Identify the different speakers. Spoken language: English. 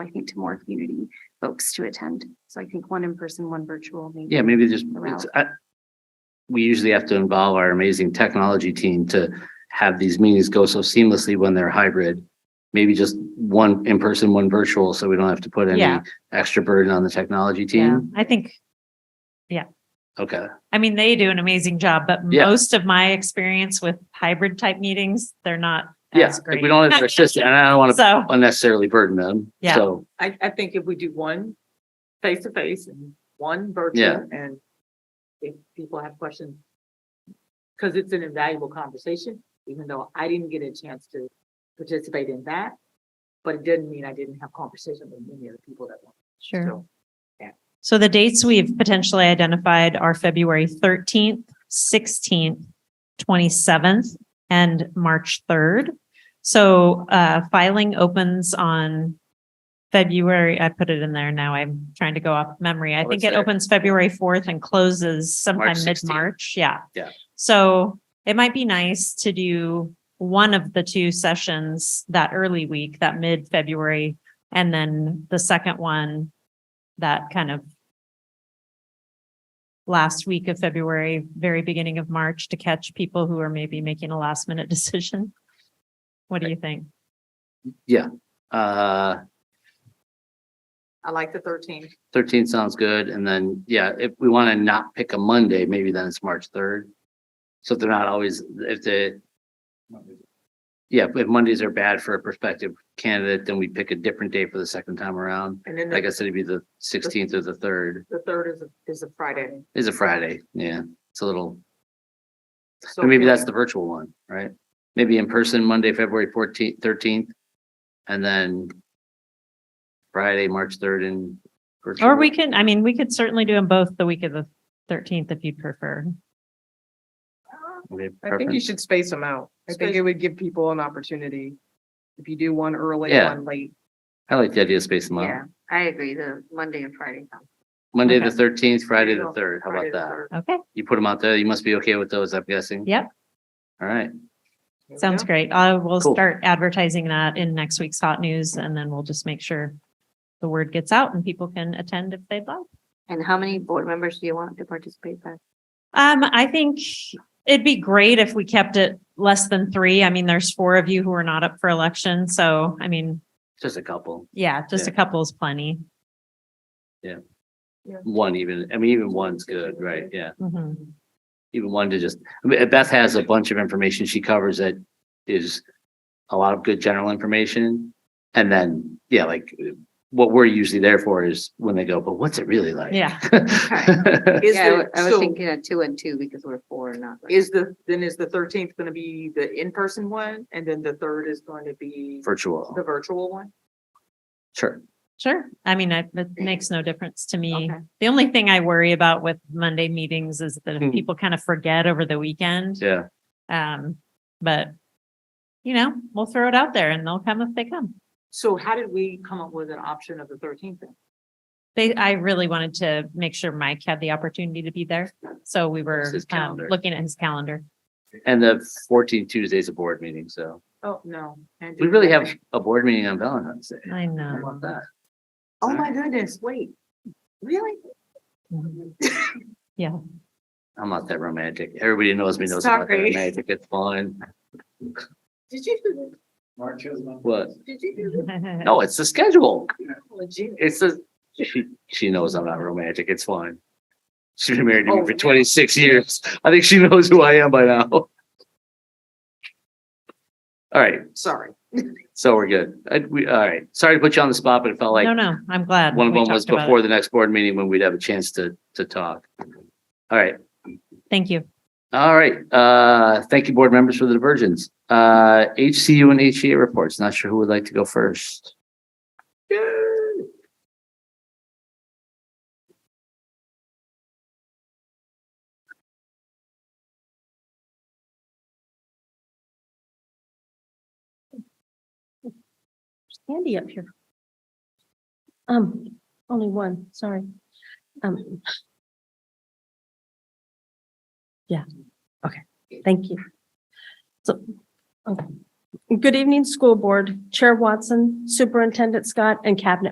Speaker 1: I think, to more community folks to attend. So I think one in person, one virtual, maybe.
Speaker 2: Yeah, maybe just,
Speaker 1: Around.
Speaker 2: it's, I, we usually have to involve our amazing technology team to have these meetings go so seamlessly when they're hybrid. Maybe just one in person, one virtual, so we don't have to put any
Speaker 3: Yeah.
Speaker 2: extra burden on the technology
Speaker 3: Yeah,
Speaker 2: team.
Speaker 3: I think,
Speaker 2: Okay,
Speaker 3: I mean, they do an amazing job, but
Speaker 2: Yeah.
Speaker 3: most of my experience with hybrid type meeters, they're not
Speaker 2: yeah,
Speaker 3: as
Speaker 2: like,
Speaker 3: great.
Speaker 2: we don't have to persist, and I don't want to
Speaker 3: So,
Speaker 2: unnecessarily burden them,
Speaker 3: Yeah.
Speaker 2: so,
Speaker 4: I, I think if we do one face to face and one
Speaker 2: Yeah.
Speaker 4: virtual and if people have questions. Cause it's an invaluable conversation, even though I didn't get a chance to participate in that. But it didn't mean I didn't have conversation with many of the people that want.
Speaker 3: sure. So the dates we've potentially identified are February thirteenth, sixteenth, twenty-seventh, and March third. So uh, filing opens on February, I put it in there now, I'm trying to go off memory. I
Speaker 2: Oh,
Speaker 3: think
Speaker 2: it's
Speaker 3: it
Speaker 2: there.
Speaker 3: opens February fourth and closes sometime
Speaker 2: 16th.
Speaker 3: mid-March, yeah.
Speaker 2: Yeah.
Speaker 3: So it might be nice to do one of the two sessions that early week, that mid-February, and then the second one, that kind of last week of February, very beginning of March to catch people who are maybe making a last minute decision. What do you think?
Speaker 2: uh,
Speaker 4: I like the thirteenth.
Speaker 2: thirteen sounds good, and then, yeah, if we want to not pick a Monday, maybe then it's March third. So if they're not always, if the Yeah, but if Mondays are bad for a prospective candidate, then we pick a different day for the second time around.
Speaker 4: And then
Speaker 2: Like I
Speaker 4: the,
Speaker 2: said, it'd be the sixteenth or the third
Speaker 4: the third is, a- is a Friday.
Speaker 2: is a Friday. Yeah, it's a little,
Speaker 4: So
Speaker 2: or maybe
Speaker 4: can-
Speaker 2: that's the virtual one, right? Maybe in person, Monday, February fourteenth, thirteenth, and then Friday, March third and.
Speaker 3: Or we can, I mean, we could certainly do them both the week of the thirteenth if you'd prefer.
Speaker 5: I think you should space them out. I think
Speaker 4: Space-
Speaker 5: it would give people an opportunity. If you do one early,
Speaker 2: Yeah.
Speaker 5: one late.
Speaker 2: I like the idea of spacing them out.
Speaker 1: Yeah, I agree, the Monday and Friday.
Speaker 2: Monday, the
Speaker 3: Okay.
Speaker 2: thirteenth, Friday, the
Speaker 4: Virtual,
Speaker 2: third. How
Speaker 4: Friday
Speaker 2: about
Speaker 4: the
Speaker 2: that?
Speaker 4: third.
Speaker 3: Okay,
Speaker 2: You put them out there. You must be okay with those, I'm guessing.
Speaker 3: Yep.
Speaker 2: All right.
Speaker 4: There we
Speaker 3: sounds
Speaker 4: go.
Speaker 3: great. I will
Speaker 2: Cool.
Speaker 3: start advertising that in next week's hot news and then we'll just make sure the word gets out and people can attend if they'd like.
Speaker 1: And how many board members do you want to participate by?
Speaker 3: Um, I think it'd be great if we kept it less than three. I mean, there's four of you who are not up for election, so I mean,
Speaker 2: Just a couple.
Speaker 3: yeah, just a couple is plenty.
Speaker 2: One even, I mean, even one's good, right? Yeah.
Speaker 3: Mhm.
Speaker 2: even one to just, I mean, Beth has a bunch of information she covers that is a lot of good general information. And then, yeah, like what we're usually there for is when they go, but what's it really like?
Speaker 3: Yeah.
Speaker 4: Is
Speaker 1: Yeah, I wa-
Speaker 4: the,
Speaker 1: I was
Speaker 4: so
Speaker 1: thinking of two and two because we're four and not. like-
Speaker 4: is the, then is the thirteenth gonna be the in-person one? And then the third is going to be
Speaker 2: Virtual,
Speaker 4: the virtual one?
Speaker 2: sure.
Speaker 3: Sure. I mean, I- it makes no difference to me.
Speaker 4: Okay.
Speaker 3: The only thing I worry about with Monday meetings is that
Speaker 2: Hmm.
Speaker 3: if people kind of forget over the weekend.
Speaker 2: Yeah.
Speaker 3: Um, but you know, we'll throw it out there and they'll come if they come.
Speaker 4: So how did we come up with an option of the thirteenth then?
Speaker 3: They, I really wanted to make sure Mike had the opportunity to be there. So we were
Speaker 2: his
Speaker 3: um,
Speaker 2: calendar.
Speaker 3: looking at his calendar.
Speaker 2: And the 14 Tuesday's a board meeting, so
Speaker 4: Oh, no. Andy,
Speaker 2: we really have
Speaker 4: okay.
Speaker 2: a board meeting on Valentine's Day.
Speaker 3: I
Speaker 2: How
Speaker 3: know.
Speaker 2: about that?
Speaker 4: Oh, my goodness, wait, really?
Speaker 2: I'm not that romantic. Everybody knows me knows I'm not that
Speaker 4: Sorry.
Speaker 2: romantic. It's fine.
Speaker 4: Did you do
Speaker 2: What?
Speaker 4: that? Did you do
Speaker 2: No, it's the schedule.
Speaker 4: that? Oh, gee.
Speaker 2: It's a, she, she knows I'm not romantic. It's fine. She's been married to me
Speaker 4: Oh,
Speaker 2: for
Speaker 4: yeah.
Speaker 2: twenty-six years. I think she knows who I am by now. All right,
Speaker 4: Sorry.
Speaker 2: so we're good. I, we, all right. Sorry to put you on the spot, but it felt like
Speaker 3: No, no, I'm glad.
Speaker 2: one of
Speaker 3: we
Speaker 2: them was
Speaker 3: talked about it.
Speaker 2: before the next board meeting when we'd have a chance to, to talk. All right,
Speaker 3: Thank you.
Speaker 2: all right. Uh, thank you, board members for the divergence. Uh, HCU and HEA reports. Not sure who would like to go first.
Speaker 6: Andy up here. Um, only one, sorry. Um. Yeah, okay, thank you. So, okay. Good evening, School Board, Chair Watson, Superintendent Scott, and Cabinet